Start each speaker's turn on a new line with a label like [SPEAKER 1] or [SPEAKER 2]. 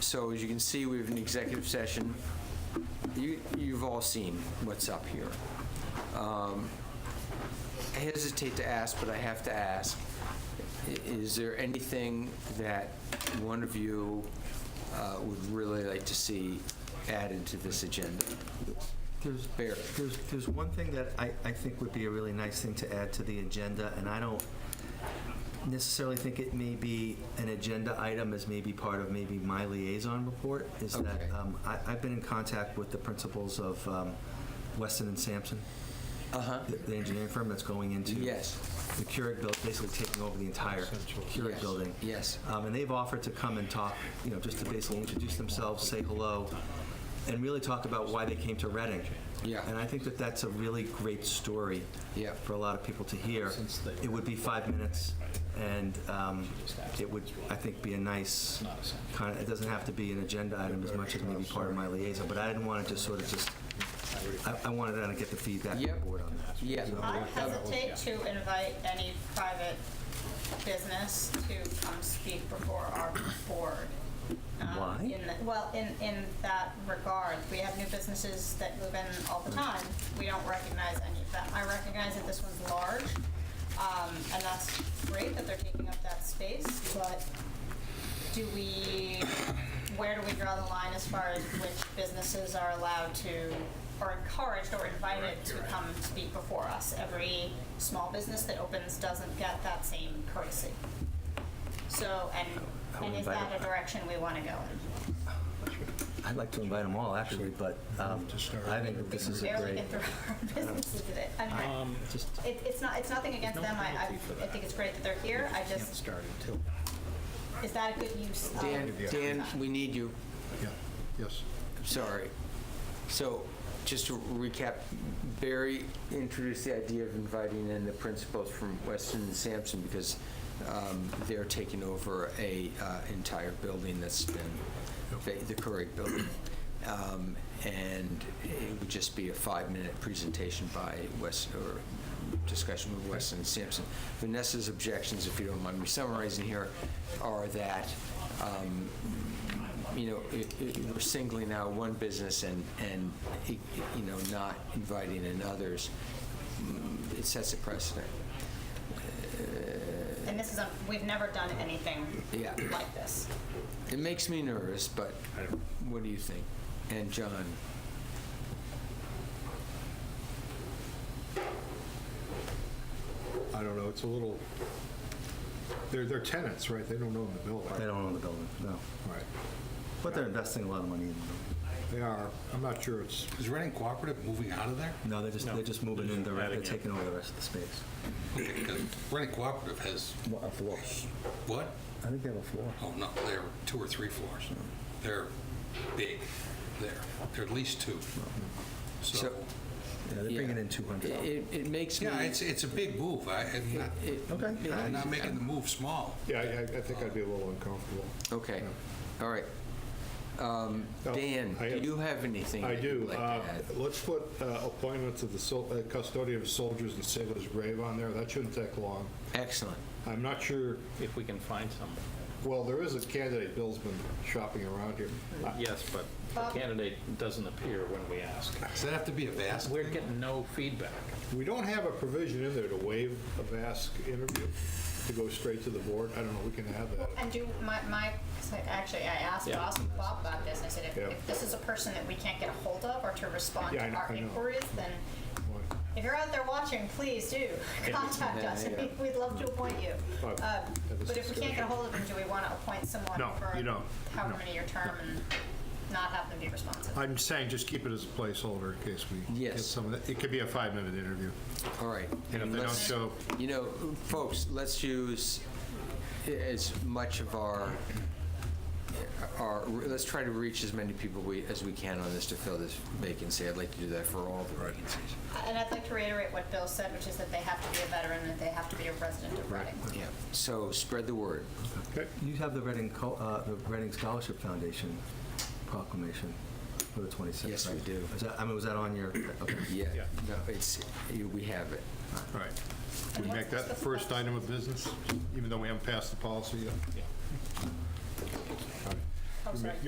[SPEAKER 1] So as you can see, we have an executive session. You, you've all seen what's up here. Um, I hesitate to ask, but I have to ask, i- is there anything that one of you uh, would really like to see added to this agenda?
[SPEAKER 2] There's,
[SPEAKER 1] Barry?
[SPEAKER 2] there's, there's one thing that I, I think would be a really nice thing to add to the agenda, and I don't necessarily think it may be an agenda item as maybe part of maybe my liaison report, is that
[SPEAKER 1] Okay.
[SPEAKER 2] um, I, I've been in contact with the principals of um, Weston and Sampson,
[SPEAKER 1] Uh-huh.
[SPEAKER 2] the- the engineering firm that's going into
[SPEAKER 1] Yes.
[SPEAKER 2] the Keurig building, basically taking over the entire Keurig
[SPEAKER 1] Yes.
[SPEAKER 2] building.
[SPEAKER 1] Yes.
[SPEAKER 2] Um, and they've offered to come and talk, you know, just to basically introduce themselves, say hello, and really talk about why they came to Reading.
[SPEAKER 1] Yeah.
[SPEAKER 2] And I think that that's a really great story
[SPEAKER 1] Yeah.
[SPEAKER 2] for a lot of people to hear. It would be five minutes, and um, it would, I think, be a nice kind of, it doesn't have to be an agenda item as much as maybe part of my liaison, but I didn't want to just sort of just, I, I wanted to kind of get the feedback from the
[SPEAKER 1] Yep.
[SPEAKER 2] board on that.
[SPEAKER 1] Yeah.
[SPEAKER 3] I hesitate to invite any private business to come speak before our board. um,
[SPEAKER 2] Why?
[SPEAKER 3] in the- Well, in, in that regard, we have new businesses that move in all the time. We don't recognize any of them. I recognize that this one's large, um, and that's great that they're taking up that space, but do we, where do we draw the line as far as which businesses are allowed to, or encouraged or invited to come speak before us? Every small business that opens doesn't get that same courtesy. So,
[SPEAKER 2] I
[SPEAKER 3] and,
[SPEAKER 2] would
[SPEAKER 3] and is
[SPEAKER 2] invite
[SPEAKER 3] that
[SPEAKER 2] them.
[SPEAKER 3] a direction we want to go in?
[SPEAKER 2] I'd like to invite them all, actually, but um, I think this is
[SPEAKER 3] We
[SPEAKER 2] a
[SPEAKER 3] barely
[SPEAKER 2] great, Um,
[SPEAKER 3] get through our businesses today. I mean,
[SPEAKER 2] just,
[SPEAKER 3] it, it's not, it's nothing against them, I, I, I think it's great that they're here, I just,
[SPEAKER 4] start until.
[SPEAKER 3] is that a good use of?
[SPEAKER 1] Dan, Dan,
[SPEAKER 3] that?
[SPEAKER 1] we need you.
[SPEAKER 4] Yeah, yes.
[SPEAKER 1] Sorry. So, just to recap, Barry introduced the idea of inviting in the principals from Weston and Sampson because um, they're taking over a uh, entire building that's been, va- the Curry building. Um, And it would just be a five-minute presentation by West, or discussion with Weston and Sampson. Vanessa's objections, if you don't mind me summarizing here, are that um, you know, it- it- we're singling out one business and, and, you know, not inviting in others, mm, it sets a precedent.
[SPEAKER 3] And this is, a- we've never done anything
[SPEAKER 1] Yeah.
[SPEAKER 3] like this.
[SPEAKER 1] It makes me nervous, but what do you think? And John?
[SPEAKER 4] I don't know, it's a little, they're, they're tenants, right? They don't own the building.
[SPEAKER 2] they don't own the building, no.
[SPEAKER 4] Right.
[SPEAKER 2] But they're investing a lot of money in the building.
[SPEAKER 4] They are, I'm not sure it's, is Reading Cooperative moving out of there?
[SPEAKER 2] No, they're just, they're just moving in, they're, they're
[SPEAKER 5] Adding it.
[SPEAKER 2] taking over the rest of the space.
[SPEAKER 6] Because Reading Cooperative has,
[SPEAKER 2] What, a floor?
[SPEAKER 6] what?
[SPEAKER 2] I think they have a floor.
[SPEAKER 6] Oh, no, they're two or three floors. They're big, there. They're at least two. So,
[SPEAKER 1] So-
[SPEAKER 2] Yeah, they're bringing in 200.
[SPEAKER 1] It, it makes me.
[SPEAKER 6] yeah, it's, it's a big move. I, I'm not,
[SPEAKER 1] it-
[SPEAKER 2] Okay.
[SPEAKER 6] I'm not making the move small.
[SPEAKER 4] Yeah, I, I think I'd be a little uncomfortable.
[SPEAKER 1] Okay, all right. Um,
[SPEAKER 4] Oh,
[SPEAKER 1] Dan,
[SPEAKER 4] I
[SPEAKER 1] do
[SPEAKER 4] have-
[SPEAKER 1] you have anything?
[SPEAKER 4] I
[SPEAKER 1] that you'd
[SPEAKER 4] do.
[SPEAKER 1] like to
[SPEAKER 4] Uh,
[SPEAKER 1] add?
[SPEAKER 4] Let's put uh, appointments of the sol- uh, custodian of soldiers and sailors' grave on there. That shouldn't take long.
[SPEAKER 1] Excellent.
[SPEAKER 4] I'm not sure,
[SPEAKER 5] If we can find some.
[SPEAKER 4] well, there is a candidate Bill's been shopping around here. Uh, I-
[SPEAKER 5] Yes, but the candidate doesn't appear when we ask.
[SPEAKER 6] Does that have to be a vast?
[SPEAKER 5] We're getting no feedback.
[SPEAKER 4] We don't have a provision in there to waive a VASC interview, to go straight to the board. I don't know, we can have that.
[SPEAKER 3] And do, my, my, so actually, I asked
[SPEAKER 5] Yeah.
[SPEAKER 3] Bob, Bob about this, I said, if,
[SPEAKER 4] Yeah.
[SPEAKER 3] if this is a person that we can't get a hold of or to respond
[SPEAKER 4] Yeah, I
[SPEAKER 3] to
[SPEAKER 4] know-
[SPEAKER 3] our
[SPEAKER 4] I know.
[SPEAKER 3] inquiries, then
[SPEAKER 4] Why?
[SPEAKER 3] if you're out there watching, please do contact
[SPEAKER 1] Yeah,
[SPEAKER 3] us.
[SPEAKER 1] yeah.
[SPEAKER 3] We- We'd love to appoint you.
[SPEAKER 4] Well,
[SPEAKER 3] Um,
[SPEAKER 4] Oh, that was
[SPEAKER 3] But if we can't get a hold of them, do we want to appoint someone
[SPEAKER 4] No,
[SPEAKER 3] for
[SPEAKER 4] you don't.
[SPEAKER 3] however
[SPEAKER 4] No.
[SPEAKER 3] many your term and not have them be responsive?
[SPEAKER 4] I'm saying just keep it as a placeholder in case we get
[SPEAKER 1] Yes.
[SPEAKER 4] some of that. It could be a five-minute interview.
[SPEAKER 1] All right.
[SPEAKER 4] And if they don't
[SPEAKER 1] Let's-
[SPEAKER 4] show,
[SPEAKER 1] You know, folks, let's use as much of our, our, let's try to reach as many people we, as we can on this to fill this vacancy. I'd like to do that for all the vacancies.
[SPEAKER 3] And I'd like to reiterate what Bill said, which is that they have to be a veteran, and they have to be a resident of Reading.
[SPEAKER 1] Yeah, so spread the word.
[SPEAKER 4] okay,
[SPEAKER 2] You have the Reading, Co- uh, the Reading Scholarship Foundation proclamation for the 26th, right?
[SPEAKER 1] Yes, we do.
[SPEAKER 2] Is that, I mean, was that on your, okay.
[SPEAKER 1] Yeah, no, it's, you- we have it.
[SPEAKER 4] all right. We make that the first item of business, even though we haven't passed the policy yet?
[SPEAKER 3] Oh, sorry.